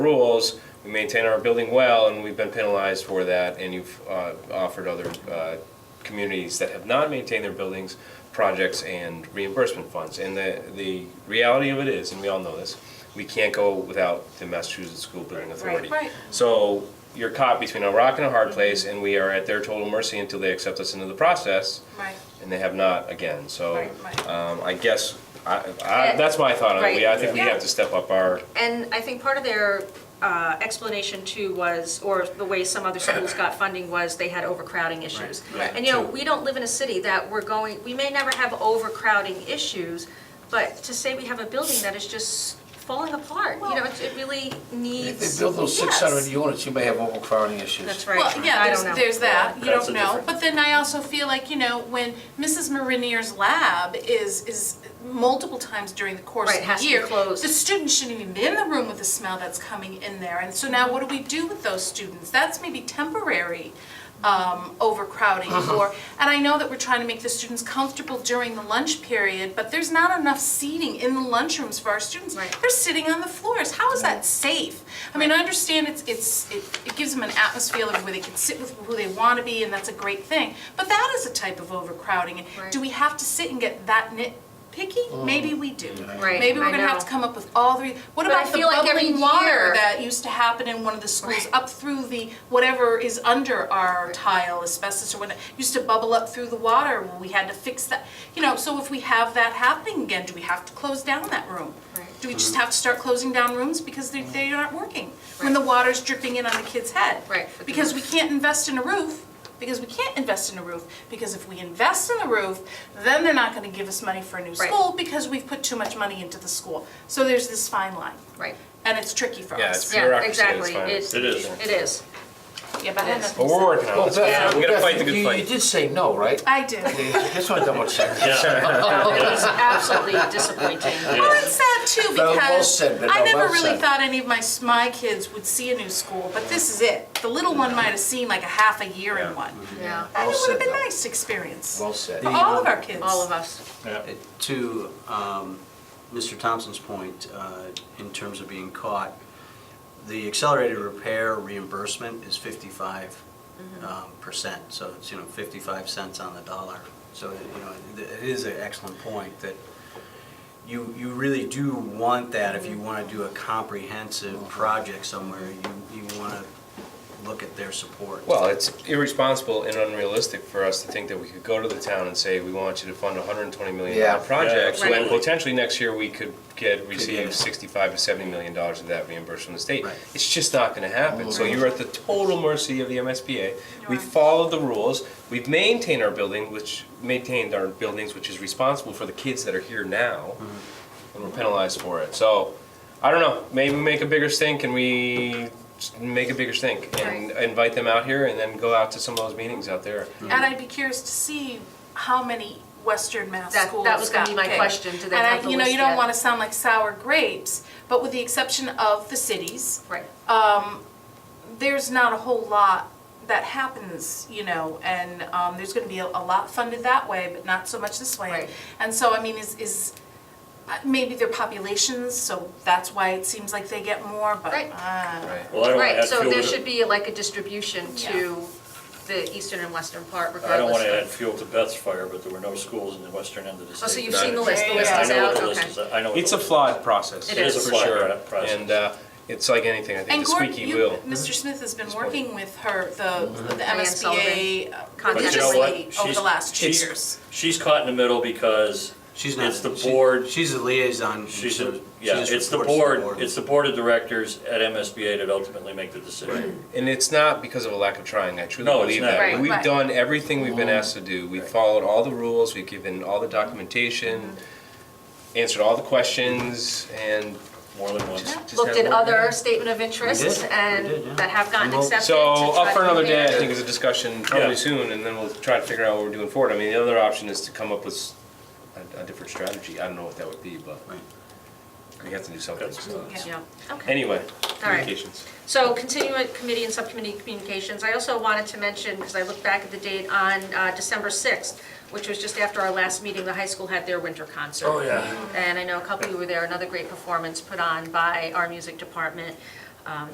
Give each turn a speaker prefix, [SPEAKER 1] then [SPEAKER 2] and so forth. [SPEAKER 1] rules, we maintain our building well, and we've been penalized for that, and you've uh, offered other uh, communities that have not maintained their buildings, projects and reimbursement funds. And the, the reality of it is, and we all know this, we can't go without the Massachusetts School Building Authority.
[SPEAKER 2] Right. Right.
[SPEAKER 1] So you're caught between a rock and a hard place, and we are at their total mercy until they accept us into the process,
[SPEAKER 2] Right,
[SPEAKER 1] and they have not again. So
[SPEAKER 2] Right, right.
[SPEAKER 1] um, I guess, I, I, that's my thought on it. We- I think we
[SPEAKER 2] Right.
[SPEAKER 1] have to step up our,
[SPEAKER 3] And I think part of their uh, explanation too was, or the way some other schools got funding was they had overcrowding issues.
[SPEAKER 1] Right, right.
[SPEAKER 3] And you know,
[SPEAKER 1] True.
[SPEAKER 3] we don't live in a city that we're going, we may never have overcrowding issues, but to say we have a building that is just falling apart, you know, it it really
[SPEAKER 4] If they
[SPEAKER 3] needs.
[SPEAKER 4] build those six hundred
[SPEAKER 3] Yes.
[SPEAKER 4] units, you may have overcrowding issues.
[SPEAKER 3] That's
[SPEAKER 2] well,
[SPEAKER 3] right,
[SPEAKER 2] yeah,
[SPEAKER 3] I
[SPEAKER 2] there's,
[SPEAKER 3] don't know.
[SPEAKER 2] there's that, you
[SPEAKER 1] That's
[SPEAKER 2] don't
[SPEAKER 1] a
[SPEAKER 2] know,
[SPEAKER 1] different-
[SPEAKER 2] but then I also feel like, you know, when Mrs. Marinier's lab is, is multiple times during the course
[SPEAKER 3] Right,
[SPEAKER 2] of
[SPEAKER 3] has
[SPEAKER 2] the
[SPEAKER 3] to be
[SPEAKER 2] year,
[SPEAKER 3] closed.
[SPEAKER 2] the students shouldn't even be in the room with the smell that's coming in there, and so now what do we do with those students? That's maybe temporary, um, overcrowding,
[SPEAKER 3] Uh-huh.
[SPEAKER 2] or, and I know that we're trying to make the students comfortable during the lunch period, but there's not enough seating in the lunchrooms for our students.
[SPEAKER 3] Right.
[SPEAKER 2] They're sitting on the floors, how is that safe? I mean, I understand it's, it's, it, it gives them an atmosphere of where they can sit with who they wanna be, and that's a great thing, but that is a type of overcrowding, and
[SPEAKER 3] Right.
[SPEAKER 2] do we have to sit and get that nitpicky? Maybe we do.
[SPEAKER 3] Right,
[SPEAKER 2] Maybe
[SPEAKER 3] I
[SPEAKER 2] we're gonna have
[SPEAKER 3] know.
[SPEAKER 2] to come up with all three, what
[SPEAKER 3] But I
[SPEAKER 2] about the
[SPEAKER 3] feel like every
[SPEAKER 2] bubbling water
[SPEAKER 3] year-
[SPEAKER 2] that used to happen in one of the schools, up through the, whatever is under our tile, asbestos or whatever, used to bubble up through the water, well, we had to fix that. You know, so if we have that happening again, do we have to close down that room?
[SPEAKER 3] Right.
[SPEAKER 2] Do we just have to start closing down rooms because they, they aren't working? When the water's dripping in on the kid's head?
[SPEAKER 3] Right, but the
[SPEAKER 2] Because we can't invest in a roof, because we can't invest in a roof, because if we invest in the roof, then they're not gonna give us money for a new
[SPEAKER 3] Right.
[SPEAKER 2] school because we've put too much money into the school. So there's this fine line.
[SPEAKER 3] right,
[SPEAKER 2] And it's tricky for
[SPEAKER 1] Yeah,
[SPEAKER 2] us.
[SPEAKER 1] it's-
[SPEAKER 3] yeah,
[SPEAKER 1] Bureaucracy is
[SPEAKER 3] exactly,
[SPEAKER 1] fine.
[SPEAKER 3] it,
[SPEAKER 5] It is.
[SPEAKER 3] it is.
[SPEAKER 2] Yeah, but I had
[SPEAKER 1] but
[SPEAKER 2] nothing to
[SPEAKER 1] we're
[SPEAKER 2] say.
[SPEAKER 1] working on
[SPEAKER 4] Well,
[SPEAKER 1] it.
[SPEAKER 4] Oh, Beth,
[SPEAKER 1] We're gonna fight the
[SPEAKER 4] Beth, you-
[SPEAKER 1] good
[SPEAKER 4] You
[SPEAKER 1] fight.
[SPEAKER 4] did say no, right?
[SPEAKER 2] I do.
[SPEAKER 4] Just want to double check.
[SPEAKER 2] Oh,
[SPEAKER 3] It's absolutely disappointing.
[SPEAKER 2] Well, it's sad too
[SPEAKER 4] Well, well
[SPEAKER 2] because
[SPEAKER 4] said, but
[SPEAKER 2] I
[SPEAKER 4] no,
[SPEAKER 2] never
[SPEAKER 4] well
[SPEAKER 2] really
[SPEAKER 4] said.
[SPEAKER 2] thought any of my s- my kids would see a new school, but this is it. The little one might have seen like a half a year in one.
[SPEAKER 3] Yeah,
[SPEAKER 2] And it
[SPEAKER 4] Well
[SPEAKER 2] would have
[SPEAKER 4] said,
[SPEAKER 2] been
[SPEAKER 4] though.
[SPEAKER 2] nice experience
[SPEAKER 4] Well
[SPEAKER 2] for
[SPEAKER 4] said.
[SPEAKER 2] all of our kids.
[SPEAKER 3] all of us,
[SPEAKER 5] Yeah.
[SPEAKER 6] To um, Mr. Thompson's point, uh, in terms of being caught, the accelerated repair reimbursement is 55 um, percent, so it's, you know, 55 cents on the dollar. So, you know, it- it is an excellent point that you, you really do want that if you want to do a
[SPEAKER 5] Mm-hmm.
[SPEAKER 6] comprehensive project somewhere, you, you want to look at their support.
[SPEAKER 1] Well, it's irresponsible and unrealistic for us to think that we could go to the town and say, we want you to fund a hundred and twenty million
[SPEAKER 4] Yeah.
[SPEAKER 1] dollar project,
[SPEAKER 3] Yeah,
[SPEAKER 1] when
[SPEAKER 3] absolutely.
[SPEAKER 1] potentially next year we could get, receive
[SPEAKER 6] it.
[SPEAKER 1] sixty-five to seventy million dollars of that reimbursed from the state.
[SPEAKER 6] Right.
[SPEAKER 1] It's just not gonna happen, so you're at the total mercy of the MSBA. We
[SPEAKER 2] are.
[SPEAKER 1] followed the rules, we've maintained our building, which, maintained our buildings, which is responsible for the kids that are here now, and we're penalized for it, so, I don't know, maybe we make a bigger stink and we s- make a bigger stink and invite them out here and then go out to some of those meetings out there.
[SPEAKER 2] And I'd be curious to see how many Western Mass
[SPEAKER 3] That-
[SPEAKER 2] schools
[SPEAKER 3] that was gonna
[SPEAKER 2] got
[SPEAKER 3] be my
[SPEAKER 2] picked.
[SPEAKER 3] question. Do they
[SPEAKER 2] And I-
[SPEAKER 3] have the
[SPEAKER 2] You know,
[SPEAKER 3] list
[SPEAKER 2] you don't
[SPEAKER 3] yet?
[SPEAKER 2] want to sound like sour grapes, but with the exception of the cities, um,
[SPEAKER 3] right,
[SPEAKER 2] there's not a whole lot that happens, you know, and um, there's going to be a, a lot funded that way, but not so much this way.
[SPEAKER 3] Right.
[SPEAKER 2] And so, I mean, is, is uh, maybe their populations, so that's why it seems like they get more, but
[SPEAKER 3] Right.
[SPEAKER 2] uh,
[SPEAKER 1] Right.
[SPEAKER 5] Well, I don't want to
[SPEAKER 3] Oh, right,
[SPEAKER 5] add
[SPEAKER 3] so
[SPEAKER 5] fuel
[SPEAKER 3] there
[SPEAKER 5] to-
[SPEAKER 3] should be like a distribution to the eastern and western part regardless.
[SPEAKER 5] I don't want to
[SPEAKER 3] of-
[SPEAKER 5] add fuel to Beth's fire, but there were no schools in the western end of the state.
[SPEAKER 3] Oh, so you've
[SPEAKER 1] Got
[SPEAKER 3] seen
[SPEAKER 1] it.
[SPEAKER 3] the list, the
[SPEAKER 2] Yeah,
[SPEAKER 3] list
[SPEAKER 2] yeah,
[SPEAKER 3] is
[SPEAKER 5] I know
[SPEAKER 3] out,
[SPEAKER 5] what the list
[SPEAKER 3] okay.
[SPEAKER 5] is, I know what
[SPEAKER 1] It's
[SPEAKER 5] the
[SPEAKER 1] a
[SPEAKER 5] list
[SPEAKER 1] flawed process.
[SPEAKER 3] It is. It is
[SPEAKER 5] a
[SPEAKER 1] for
[SPEAKER 5] flawed
[SPEAKER 1] sure.
[SPEAKER 5] pro- process.
[SPEAKER 1] And uh, it's like anything, I think
[SPEAKER 2] And
[SPEAKER 1] the
[SPEAKER 2] Gordon,
[SPEAKER 1] squeaky
[SPEAKER 2] you,
[SPEAKER 1] wheel.
[SPEAKER 2] Mr. Smith has been working with her, the, the MSBA
[SPEAKER 3] Sullivan.
[SPEAKER 2] uh,
[SPEAKER 3] But
[SPEAKER 5] you know what?
[SPEAKER 2] religiously over
[SPEAKER 5] She's-
[SPEAKER 2] the last two
[SPEAKER 5] she's-
[SPEAKER 2] years.
[SPEAKER 5] She's caught in the middle because
[SPEAKER 6] She's not.
[SPEAKER 5] it's the
[SPEAKER 6] she-
[SPEAKER 5] board,
[SPEAKER 6] She's a liaison.
[SPEAKER 5] she's,
[SPEAKER 6] so
[SPEAKER 5] a-
[SPEAKER 6] she
[SPEAKER 5] yeah,
[SPEAKER 6] just
[SPEAKER 5] it's the
[SPEAKER 6] reports to
[SPEAKER 5] board, it's the board of directors at MSBA that ultimately make the decision.
[SPEAKER 1] And it's not because of a lack of trying. I truly
[SPEAKER 5] No, it's
[SPEAKER 1] believe
[SPEAKER 5] not. Mm-hmm.
[SPEAKER 1] that.
[SPEAKER 3] Right,
[SPEAKER 1] We've
[SPEAKER 2] right.
[SPEAKER 1] done everything we've been asked to do. We followed all the rules. We've given all the documentation,
[SPEAKER 2] Mm-hmm.
[SPEAKER 1] answered all the questions, and
[SPEAKER 5] More than once.
[SPEAKER 1] just
[SPEAKER 3] Looked
[SPEAKER 1] had
[SPEAKER 3] at
[SPEAKER 1] one-
[SPEAKER 3] other statement of
[SPEAKER 6] We
[SPEAKER 3] interests
[SPEAKER 6] did, we did, yeah.
[SPEAKER 3] and that have gotten
[SPEAKER 6] And we'll-
[SPEAKER 3] accepted.
[SPEAKER 1] So
[SPEAKER 3] to try
[SPEAKER 1] up for
[SPEAKER 3] to
[SPEAKER 1] another day,
[SPEAKER 3] compare.
[SPEAKER 1] I think, is a discussion probably
[SPEAKER 5] Yeah.
[SPEAKER 1] soon, and then we'll try to figure out what we're doing forward. I mean, the other option is to come up with s- a, a different strategy. I don't know what that would be, but
[SPEAKER 6] Right.
[SPEAKER 1] we have to do something. so.
[SPEAKER 3] Yeah, okay.
[SPEAKER 1] Anyway,
[SPEAKER 3] right.
[SPEAKER 1] communications.
[SPEAKER 3] So continuing committee and subcommittee communications, I also wanted to mention, because I looked back at the date on uh, December 6th, which was just after our last meeting, the high school had their winter concert.
[SPEAKER 5] Oh, yeah.
[SPEAKER 3] And I know a couple of you were there, another great performance put on by our music department. um,